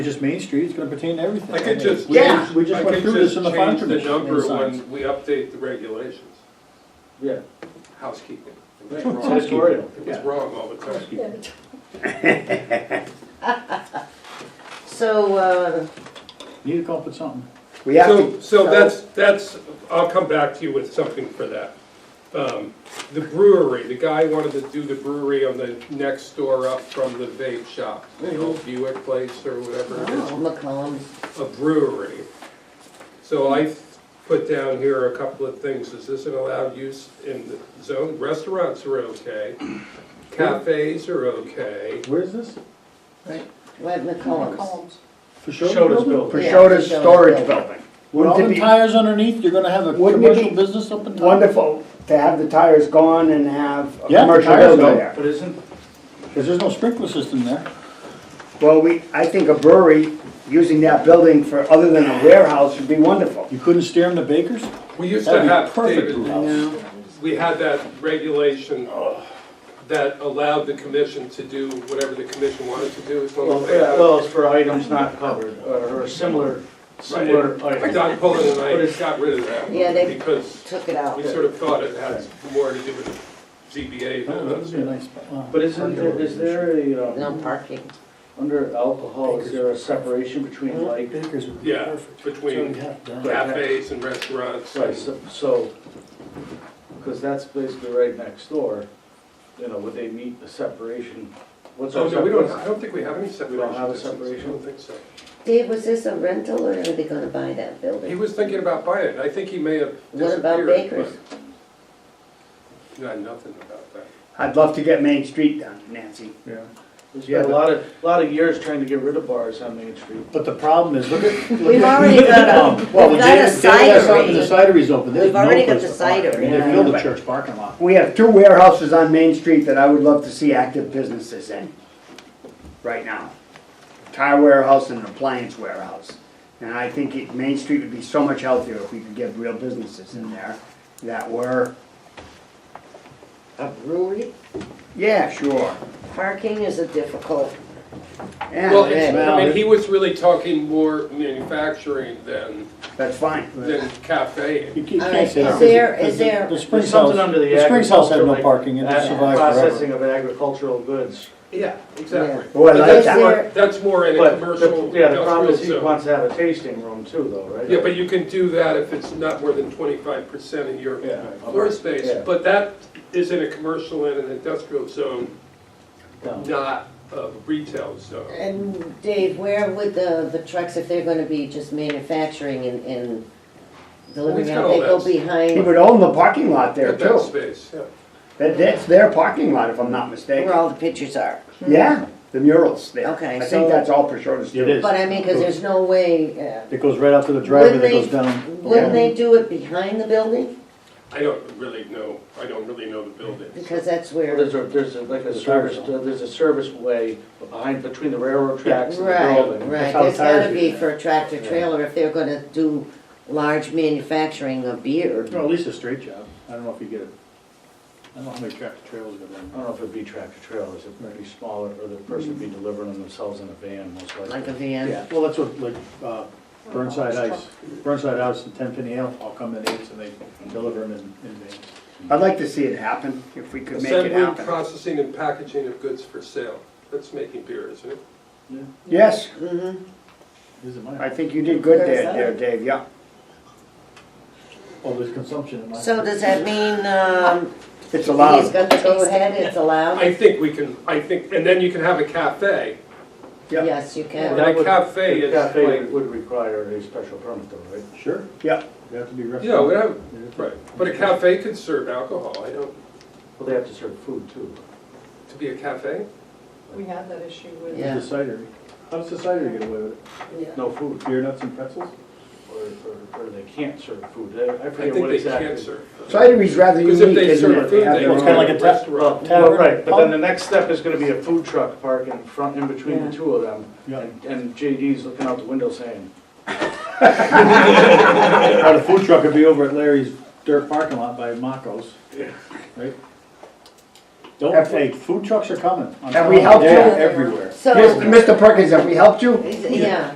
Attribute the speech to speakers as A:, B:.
A: just Main Street, it's gonna pertain to everything.
B: I could
A: mean,
B: just.
A: we
C: Yeah.
A: We just went through this in the fire
B: fund
A: commission. I mean,
B: Change the number
A: signs.
B: when we update the regulations,
A: Yeah.
B: housekeeping.
A: It's
B: It was wrong.
A: editorial,
B: It was
A: yeah.
B: wrong all the time.
C: So, uh,
A: Need to come up with something.
C: we have
B: So,
C: to.
B: so that's, that's, I'll come back to you with something for that. Um, The brewery, the guy wanted to do the brewery on the next door up from the vape shop, the old Buick place or whatever it is,
C: Oh, McCollum's.
B: a brewery. So I put down here a couple of things, is this an allowed use in the zone? Restaurants are okay, cafes are okay.
A: Where is this?
C: Right, Right, McCollum's.
A: For sure.
D: Shodas building.
C: Yeah,
D: Shodas
C: Shodas
D: storage
C: building.
D: building.
A: With all
D: Wouldn't
A: the
D: it be
A: tires underneath, you're gonna have a
D: Wouldn't it be
A: commercial business up and top?
D: wonderful to have the tires gone and have a
A: Yeah, the
D: commercial
A: tires
D: building
A: go.
D: there?
E: But isn't,
A: Cause there's no sprinkler system there.
D: Well, we, I think a brewery, using that building for, other than a warehouse, would be wonderful.
A: You couldn't steer them to Baker's?
B: We used to
A: That'd be
B: have,
A: perfect Oh,
B: David,
A: brewhouse.
B: we had that regulation that allowed the commission to do whatever the commission wanted to do as long as they had.
E: well, it's for items not covered, or or similar, similar
B: Right.
E: items.
B: Don Pullen and
E: But
B: I
E: it's-
B: got rid of that.
C: Yeah, they-
B: Because
C: Took it out.
B: we sort of thought it had more to do with ZBA
A: Oh, that would be a
B: than us.
A: nice spot. Wow.
E: But isn't, there- is there a,
C: No
E: um,
C: parking.
E: under alcohol, is there a separation between like,
A: Baker's would
B: Yeah, between cafes and restaurants.
E: right, so- so, because that's basically right next door, you know, would they meet the separation? What's
B: So,
E: our
B: Oh, no, we don't,
E: separation?
B: I don't think we have any separation.
E: We don't have a
B: distance.
E: separation?
B: I don't think so.
C: Dave, was this a rental or are they gonna buy that
B: He
C: building?
B: was thinking about buying it. I think he may have
C: What about
B: disappeared.
C: Baker's?
B: but- Not nothing about that.
D: I'd love to get Main Street done, Nancy.
A: Yeah.
E: There's been a lot of, lot of years trying to get rid of bars on Main Street.
A: But the problem is, look at. look
C: We've
A: at-
C: already got a,
A: Um, well,
C: we've
A: the
C: got
A: Jada-
C: a
A: Jada's out and The
C: cidery.
A: cidery's open, there's
C: We've
A: no
C: already got
A: place to
C: the
A: park. I mean,
C: cidery.
A: They filled the
D: Yeah.
A: church parking lot.
D: We have two warehouses on Main Street that I would love to see active businesses in, right now. Tire warehouse and an appliance warehouse. And I think it- Main Street would be so much healthier if we could get real businesses in there that were,
C: A brewery.
D: yeah, sure,
C: Parking is a difficult,
B: Well,
D: yeah,
B: it's,
A: well,
B: I mean,
A: it-
B: he was really talking more manufacturing than,
D: that's fine.
B: than cafe.
A: You can't-
C: All
A: can't
C: right,
A: say
C: is
A: that.
C: there-
A: Because
C: is
A: the-
C: there-
A: The Springs
E: There's something
A: House,
E: under the
A: the Springs House had no
E: agricultural,
A: parking, and it
E: ag-
A: survived forever.
E: Processing of agricultural goods.
B: Yeah, exactly.
D: Oh, I
B: But
D: like
B: that's
D: that.
B: more- That's more in a
E: But, the-
B: commercial
E: yeah, the problem
B: industrial
E: is he
B: zone.
E: wants to have a tasting room too, though, right?
B: Yeah, but you can do that if it's not more than twenty-five percent of your
E: Yeah.
B: floor space.
E: Yeah.
B: But that is in a commercial and an industrial zone,
E: No.
B: not a retail zone.
C: and Dave, where would the, the trucks, if they're gonna be just manufacturing and, and delivering
B: got
C: out,
B: all
C: they go
B: that.
D: He
C: behind
D: would own the parking lot there
B: Get that
D: too.
B: space, yeah.
D: That, that's their parking lot, if I'm not
C: where
D: mistaken.
C: all the pictures are?
D: Yeah, the murals there.
C: Okay,
D: I
C: so-
D: think that's all Prosciutto's
A: It
D: too.
A: is.
C: But I mean, cause there's no way, uh,
A: It goes right out to the driveway that goes
C: Wouldn't they-
A: down.
C: Wouldn't they do it behind the building?
B: I don't really know, I don't really know the building.
C: Because that's
E: Well,
C: where,
E: There's a, there's a- like a
A: Service
E: service, uh, there's a service way behind, between the railroad tracks and the
C: right,
E: building.
C: right,
A: That's how
C: there's
A: the tires
C: gotta
A: get
C: be
A: there.
C: for a tractor trailer if they're gonna do large manufacturing of beer.
A: Well, at least a straight job. I don't know if you get it. I don't know how many tractor trailers go
E: I
A: down.
E: don't know if it'd be tractor trailers, it might be smaller, or the person would be delivering them themselves in a van, most
C: Like a
E: likely.
C: van,
A: Yeah, well, that's what, like, uh, Burnside Ice, Burnside Ice and Ten Penny Ale all come in eights and they deliver them in, in vans.
D: I'd like to see it happen, if we could make it
B: Assembly,
D: happen.
B: processing, and packaging of goods for sale. That's making beer, isn't it?
D: Yes,
C: Mm-hmm.
A: These are
D: I
A: mine.
D: think you did good
C: There's
D: there,
C: that.
D: there, Dave, yeah.
A: Oh, there's consumption in mine.
C: so does that mean, um,
D: It's
C: he's
D: allowed.
C: gonna go ahead, it's allowed?
B: I think we can, I think, and then you can have a cafe.
D: Yeah.
C: Yes, you
E: Well,
C: can,
B: That
E: would-
B: cafe
E: the
B: is
E: cafe
B: like-
E: would require a special permit though, right?
A: Sure,
D: Yeah,
A: you have to be restaurant.
B: Yeah, whatever, right. But a cafe could serve alcohol. I don't,
E: Well, they have to serve food too.
B: to be a cafe?
F: We had that issue with.
C: Yeah.
A: It's a cidery. How does the cidery get away with it?
E: No food,
A: Beer nuts and pretzels?
E: or, or, or they can't serve food, I I
B: I
E: forget
B: think
E: what
B: they can
E: exactly.
B: serve.
D: cidery's rather
B: Because if
D: unique,
B: they
D: isn't
B: serve
D: it?
B: food,
D: They have
B: they
D: their
B: would
A: It's kinda
D: own-
A: like
B: have
A: a
B: a
A: tap-
B: restaurant.
E: Well, right, but then the next step is gonna be a food truck park in front, in between
C: Yeah.
E: the two of them.
A: Yeah.
E: And and JD's looking out the window saying,
A: Or the food truck would be over at Larry's dirt parking lot by Mako's, right? Don't,
D: Have we-
A: hey, food trucks are coming. I'm
D: Have we
A: telling
D: helped
A: They're
F: you?
A: Everywhere.
C: So,
D: Mr. Perkins, have we helped you?
C: yeah.